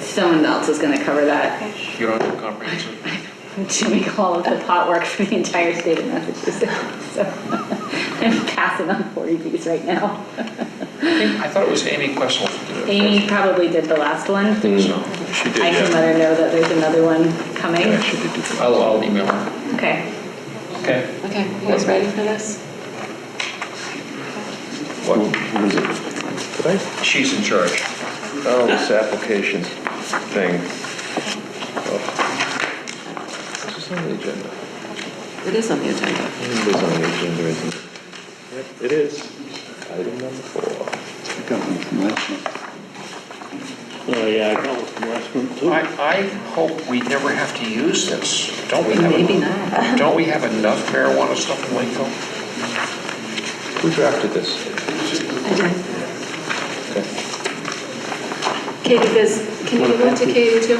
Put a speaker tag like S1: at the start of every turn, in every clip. S1: someone else is gonna cover that.
S2: You don't do comprehensive.
S1: Jimmy all of the pot work for the entire state of Massachusetts, so I'm passing on forty Bs right now.
S2: I thought it was Amy Questle who did it.
S1: Amy probably did the last one.
S2: So
S3: She
S1: I can
S3: did, yeah.
S1: let her know that there's another one coming.
S3: She did do that.
S2: I'll, I'll email her.
S1: Okay.
S2: Okay.
S4: Okay, you guys ready for this?
S3: What what is it? Did I?
S2: She's in charge.
S3: Oh, this application thing. Oh. Is this on the agenda?
S4: It is on the agenda.
S3: I think It is on the agenda, isn't it? Yep, it is. Item number four.
S5: I got one from last month.
S6: Oh, yeah, I got one from last month too.
S2: I, I hope we never have to use this. Don't we have,
S4: Maybe
S2: en-
S4: not.
S2: don't we have enough marijuana stuff in Lakeville?
S3: Who drafted this?
S4: Katie, does, can you give that to Katie too?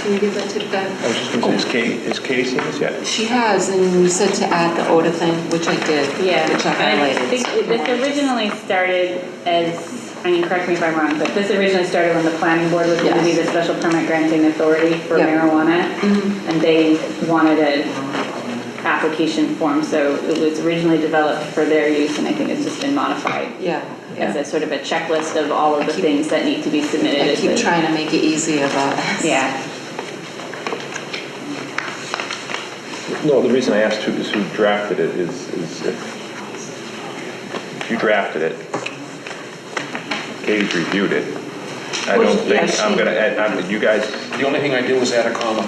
S4: Can you give that to Bev?
S3: I was just gonna say, is Kate, is Casey, is that?
S4: She has, and you said to add the odor thing, which I did,
S1: Yeah,
S4: which I
S1: I
S4: highlighted.
S1: think
S4: so if you
S1: this
S4: wanna just-
S1: originally started as, I mean, correct me if I'm wrong, but this originally started when the planning board was going to be the
S4: Yes.
S1: special permit granting authority for
S4: Yep. Mm-hmm.
S1: marijuana. And they wanted a application form, so it was originally developed for their use and I think it's just been modified
S4: Yeah,
S1: as
S4: yeah.
S1: a sort of a checklist of all of the
S4: keep-
S1: things that need to be submitted.
S4: I
S1: as
S4: keep
S1: a-
S4: trying to make it easy about us.
S1: Yeah.
S3: No, the reason I asked who, is who drafted it is, is if if you drafted it, Katie's reviewed it. I
S4: Well,
S3: don't
S4: yeah,
S3: think, I'm
S4: she-
S3: gonna, add- I'm, you guys,
S2: The only thing I did was add a comma.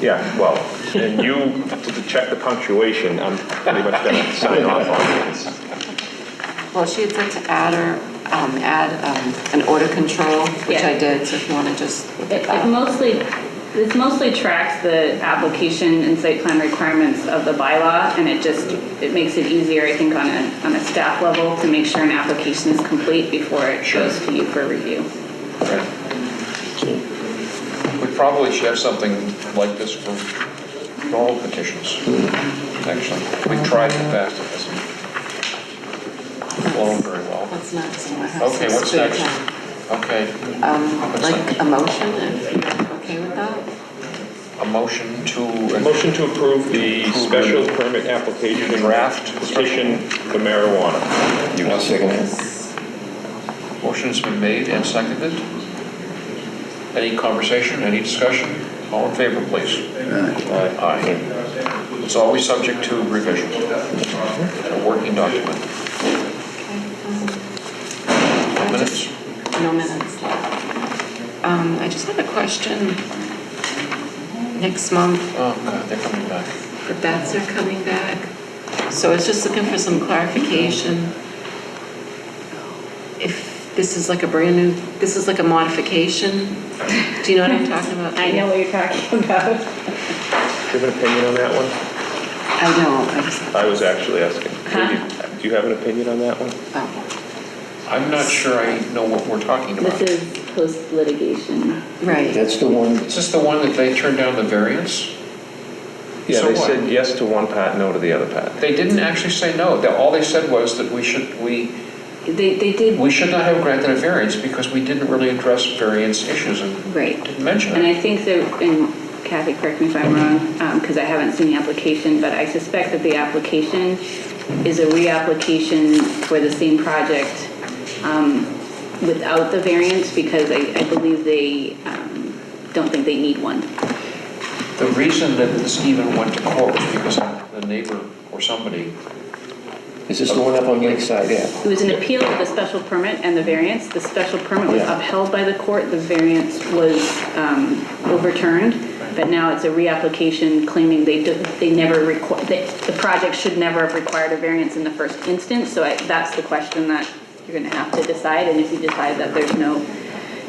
S3: yeah, well, and you, to check the punctuation, I'm pretty much gonna sign off on it.
S4: Well, she had said to add her, um, add, um, an odor control, which
S1: Yeah.
S4: I did, so if you wanna just look at
S1: It it
S4: that.
S1: mostly, this mostly tracks the application and site plan requirements of the bylaw, and it just, it makes it easier, I think, on a, on a staff level to make sure an application is complete before it
S2: Sure.
S1: goes to you for review.
S2: We probably should have something like this for all petitions, actually. We tried in the past, it hasn't flown very well.
S4: What's next? I wanna have
S2: Okay,
S4: some
S2: what's
S4: spare
S2: next?
S4: time.
S2: Okay,
S4: Um,
S2: What's
S4: like
S2: next?
S4: a motion, if you're okay with that?
S2: a motion to.
S3: Motion to approve the
S2: Approve.
S3: special permit application
S2: Draft.
S3: draft petition for marijuana. You want second
S2: Motion's been made and seconded. Any conversation, any discussion? All in favor, please. Aye. It's always subject to revision. A working document.
S4: Okay. um, I just-
S2: Minutes?
S4: No minutes left. Um, I just have a question. Next month,
S2: Oh, God, they're coming back.
S4: the bats are coming back, so I was just looking for some clarification. If this is like a brand new, this is like a modification, do you know what I'm talking about?
S1: I know what you're talking about.
S3: Do you have an opinion on that one?
S4: I don't, I just,
S3: I was actually asking.
S1: Huh?
S3: Do you have an opinion on that one?
S4: oh,
S2: I'm not sure I know what we're talking about.
S1: This is post-litigation.
S4: right,
S5: That's the one,
S2: Is this the one that they turned down the variance?
S3: Yeah,
S2: So
S3: they
S2: what?
S3: said yes to one part, no to the other part.
S2: They didn't actually say no. They- All they said was that we should, we,
S1: They, they did,
S2: we should not have granted a variance because we didn't really address variance issues and
S1: right.
S2: didn't mention
S1: And
S2: it.
S1: I think that, and Kathy, correct me if I'm wrong, because I haven't seen the application, but I suspect that the application is a reapplication for the same project um, without the variance, because I I believe they um, don't think they need one.
S2: The reason that this even went to court was because the neighbor or somebody,
S5: is this the one up on Lakeside Ave?
S1: It was an appeal of the special permit and the variance. The special permit was
S5: Yeah.
S1: upheld by the court, the variance was um, overturned, but now it's a reapplication claiming they, do- they never required, the project should never have required a variance in the first instance, so I- that's the question that you're gonna have to decide, and if you decide that there's no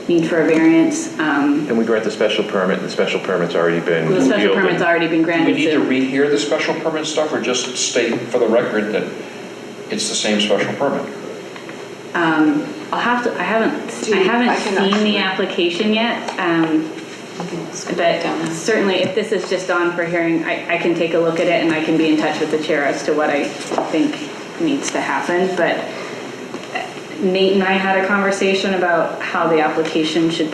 S1: need for a variance, um,
S3: And we grant the special permit, and the special permit's already been
S1: the special
S3: revealed and-
S1: permit's already been
S2: do we
S1: granted.
S2: need to
S1: so-
S2: rehear the special permit stuff or just state for the record that it's the same special permit?
S1: I'll have to, I haven't,
S4: Do
S1: I
S4: you- I
S1: haven't
S4: can
S1: seen the
S4: actually-
S1: application yet, um,
S4: I can scoot
S1: But
S4: down this.
S1: certainly, if this is just on for hearing, I, I can take a look at it and I can be in touch with the chair as to what I think needs to happen. But Nate and I had a conversation about how the application should